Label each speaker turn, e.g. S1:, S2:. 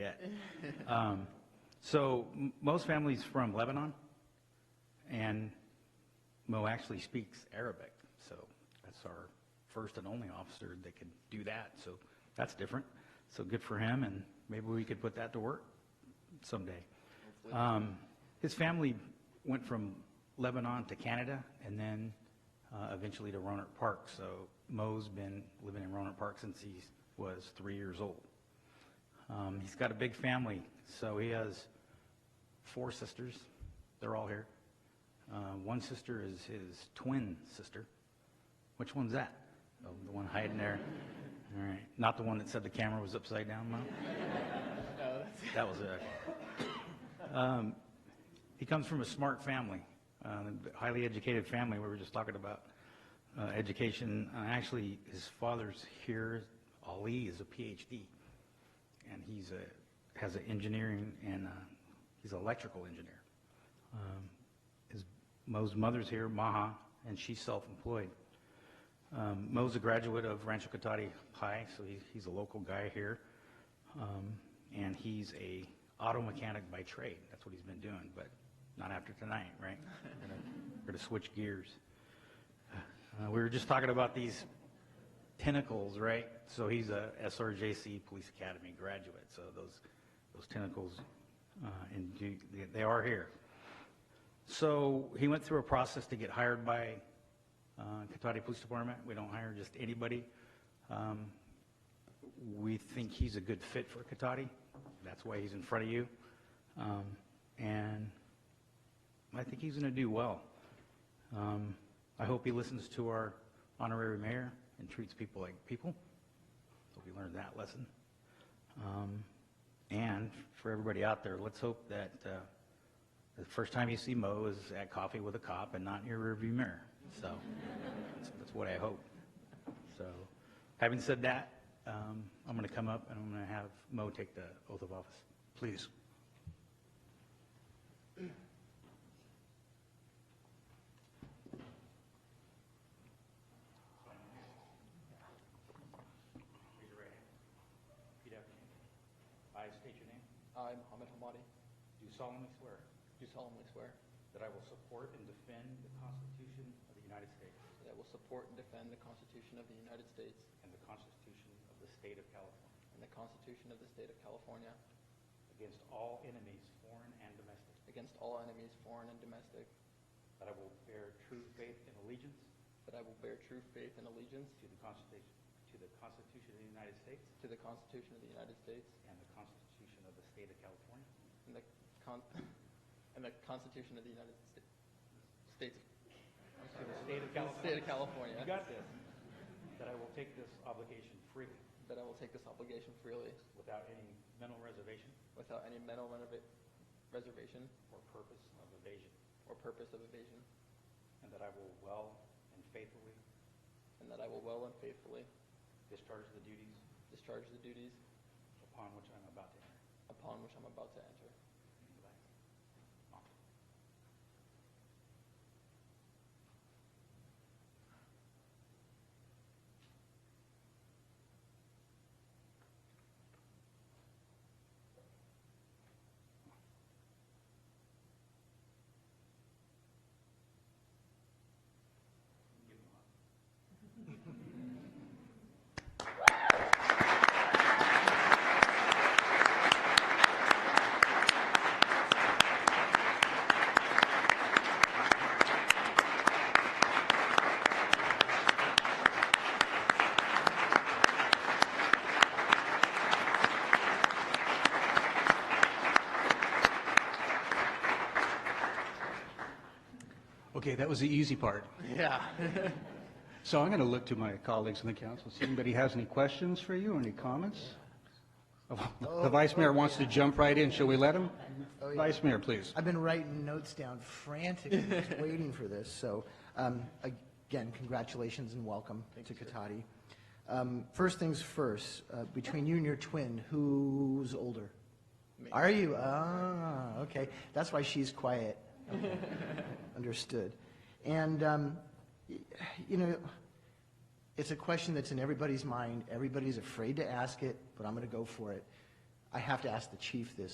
S1: that. Um, So m- most families from Lebanon, and Mo actually speaks Arabic, so that's our first and only officer that could do that, so that's different. So good for him, and maybe we could put that to work someday. Um, His family went from Lebanon to Canada, and then uh, eventually to Roanoke Park, so Mo's been living in Roanoke Park since he was three years old. Um, he's got a big family, so he has four sisters. They're all here. Uh, one sister is his twin sister. Which one's that? Oh, the one hiding there. All right. Not the one that said the camera was upside down, Mo? That was it. Um, he comes from a smart family, uh, highly educated family. We were just talking about uh, education. Uh, actually, his father's here. Ali is a PhD and he's a, has an engineering and uh he's an electrical engineer. Um, his, Mo's mother's here, Maha, and she's self-employed. Um, Mo's a graduate of Rancho Cotati High, so he, he's a local guy here. Um, and he's a auto mechanic by trade. That's what he's been doing, but not after tonight, right? We're gonna, we're gonna switch gears. Uh, we were just talking about these tentacles, right? So he's a SRJC Police Academy graduate, so those, those tentacles, uh, and do- they- they are here. So he went through a process to get hired by uh, Cotati Police Department. We don't hire just anybody. Um, We think he's a good fit for Cotati. That's why he's in front of you. Um, And I think he's going to do well. Um, I hope he listens to our honorary mayor and treats people like people. Hope he learned that lesson. Um, and for everybody out there, let's hope that uh, the first time you see Mo is at coffee with a cop and not in your rearview mirror. So that's, that's what I hope. So, having said that, um, I'm going to come up and I'm going to have Mo take the oath of office. Please. Raise your right hand. Repeat after me. I state your name.
S2: I, Mohammed Hamadi,
S1: Do solemnly swear
S2: do solemnly swear
S1: that I will support and defend the Constitution of the United States
S2: that I will support and defend the Constitution of the United States
S1: and the Constitution of the State of California
S2: and the Constitution of the State of California
S1: against all enemies, foreign and domestic,
S2: against all enemies, foreign and domestic,
S1: that I will bear true faith and allegiance
S2: that I will bear true faith and allegiance
S1: to the Constitution, to the Constitution of the United States
S2: to the Constitution of the United States
S1: and the Constitution of the State of California,
S2: and the con- and the Constitution of the United Sta- States
S1: to the State of
S2: and the
S1: California.
S2: State of California,
S1: You got this. That I will take this obligation freely
S2: that I will take this obligation freely
S1: without any mental reservation
S2: without any mental renova- reservation
S1: or purpose of evasion,
S2: or purpose of evasion,
S1: and that I will well and faithfully
S2: and that I will well and faithfully
S1: discharge the duties
S2: discharge the duties
S1: upon which I'm about to enter.
S2: upon which I'm about to enter.
S3: Okay, that was the easy part.
S2: Yeah.
S3: So I'm going to look to my colleagues in the council, see if anybody has any questions for you, or any comments? The vice mayor wants to jump right in. Shall we let him?
S4: yeah.
S3: Vice mayor, please.
S4: I've been writing notes down frantically, just waiting for this. So, um, again, congratulations and welcome to Katati. Um, first things first, uh, between you and your twin, who's older? Are you? Ah, okay. That's why she's quiet. Okay. Understood. And, um, y- you know, it's a question that's in everybody's mind. Everybody's afraid to ask it, but I'm going to go for it. I have to ask the chief this,